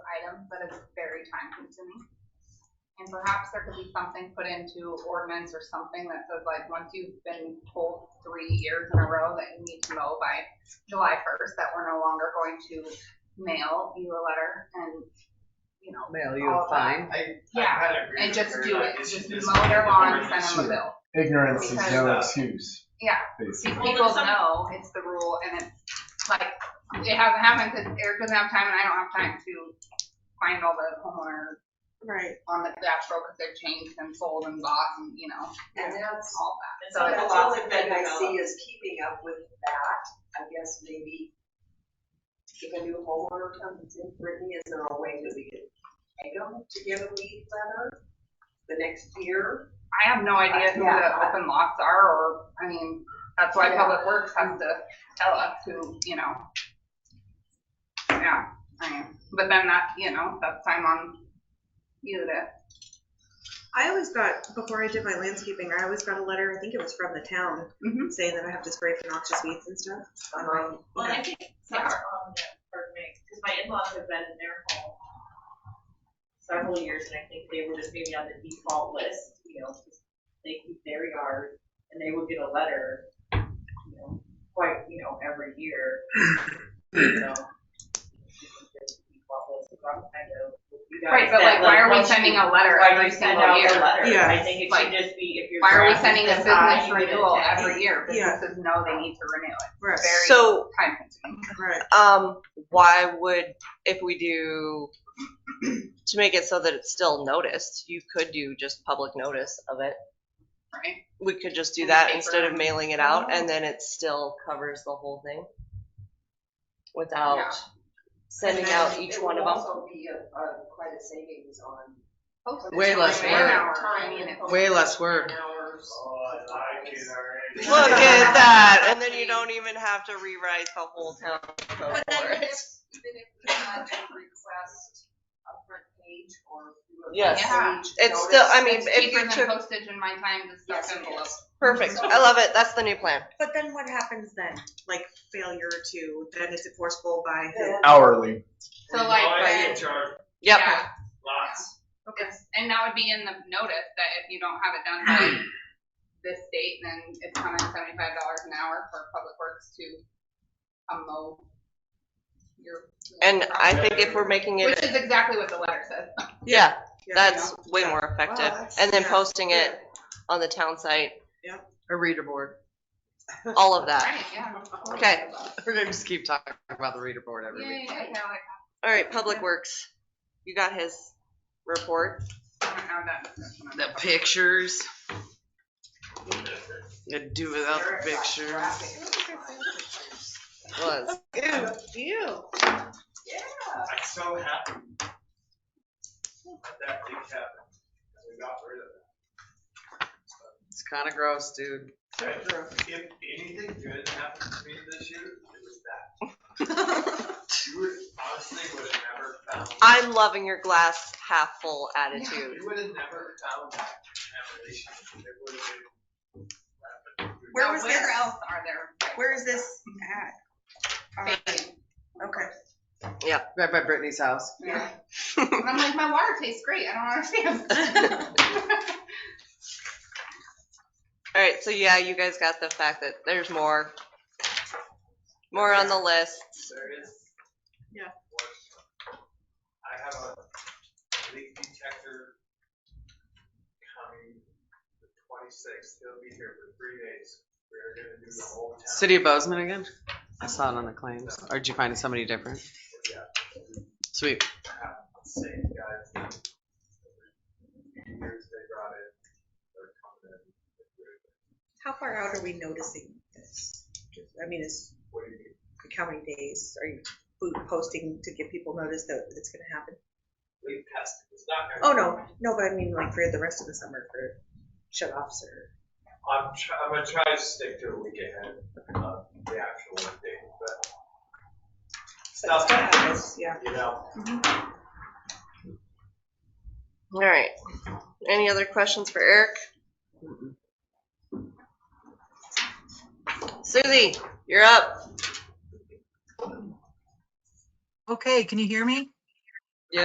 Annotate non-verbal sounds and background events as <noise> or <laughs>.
item, but it's very time consuming. And perhaps there could be something put into ordinance or something that says like, once you've been told three years in a row that you need to mow by July first, that we're no longer going to mail you a letter and, you know, Mail you All a of fine. I, I Yeah, kind of agree and with just her, do like, it, it's- just it's mow their lawn, different. send them a bill. Ignorance is Because, no uh, excuse. Yeah. See, Basically. people know it's the rule and it's like, it hasn't happened because Eric doesn't have time and I don't have time to find all the homeowners Right. on the dashboard because they've changed and sold and bought and, you know, And that's, all that. that's So the it's only all thing been I see developed. is keeping up with that, I guess maybe if a new homeowner comes in, Brittany, is there a way that we could take them to get a lead letter the next year? I have no idea who the Yeah. open lots are or, I mean, that's why Yeah. Public Works has to tell us who, you know. Yeah, I am. But then that, you know, that's time on you to I always got, before I did my landscaping, I always got a letter, I think it was from the town, Mhm. saying that I have to spray for noxious weeds and stuff. on my- Well, yeah. I think that's on the, for me, because my in-laws have been in their home several years, and I think they were just maybe on the default list, you know, 'cause they keep their yard, and they would get a letter, you know, quite, you know, every year, so. Right, but like, why are we sending a letter every single Why do you send out the year? letter? Yeah. I think it Like, should just be if your Why are we grass is sending a this high, business you get a renewal check. every year? Yeah. Businesses know they need to renew it. Right. Very So- time consuming. Right. Um, why would, if we do, to make it so that it's still noticed, you could do just public notice of it. Right. We could just do In the that paper. instead of mailing it out and Mm-hmm. then it still covers the whole thing. Yeah. Without sending out each one of them. also be a, a, quite a savings on. Way less Man work. hours, I mean, it's- Way less work. Hours. Oh, I like it already. Look <laughs> <laughs> at that, and then you don't even have to rewrite the whole town. But then report. even if, even if we had to request a front page or. do a Yes. front page It's still, I notice, It's mean, if cheaper you than took, postage and my time to stuff Yes, it envelopes. is. perfect, I love it, that's the new plan. But then what happens then? Like failure to, then it's enforceable by who? Then- Hourly. So You Oh, like, always when- get charged Yep, Yeah, lots. it's- and that would be in the notice that if you don't have it done by this date, then it's hundred and seventy-five dollars an hour for Public Works to um, mow your. and I think if we're making it, Which is exactly what the letter says. yeah, Yeah. that's way more effective. Wow, that's- And then yeah. posting it on the town site, A reader board. all of that. Right, yeah. Okay. We're gonna just keep talking about the reader board every Yay, week. okay, I like All right, Public Works, you got his report? that. I'm gonna add that discussion. The pictures. Could do without the pictures. Was. Yeah. I'm so happy. That that big cabin, we got rid of it. It's kinda gross, dude. If anything good happened to me this year, it was that. You would honestly would have never found. <laughs> I'm loving your glass half full attitude. You would have never found that revelation. It would have been. Where Now, was Where this? else are there? Where is this at? Um, Thank you. Okay. Right by Brittany's <laughs> <laughs> house. Yeah. And I'm like, my water tastes great, I don't <laughs> understand. <laughs> All right, so yeah, you guys got the fact that there's more, more on the list. There is. Yeah. I have a leak detector coming the twenty-sixth. He'll be here for three days. We're gonna do the whole town. City of Bozeman again? I saw it on the claims. Or did you find somebody different? Yeah. Sweet. have the same guys. that every Years they brought in, they're coming in. How far out are we noticing this? I mean, is, What do you mean? like, how many days are you posting to give people notice that it's gonna happen? Leak testing is not. gonna- Oh, no, no, but I mean like for the rest of the summer for shut offs or, I'm, try- I'm gonna try to stick to a week ahead of the actual date, but. Stuff happens, yeah. you know? All right. Any other questions for Eric? Susie, you're up. Okay, can you hear me?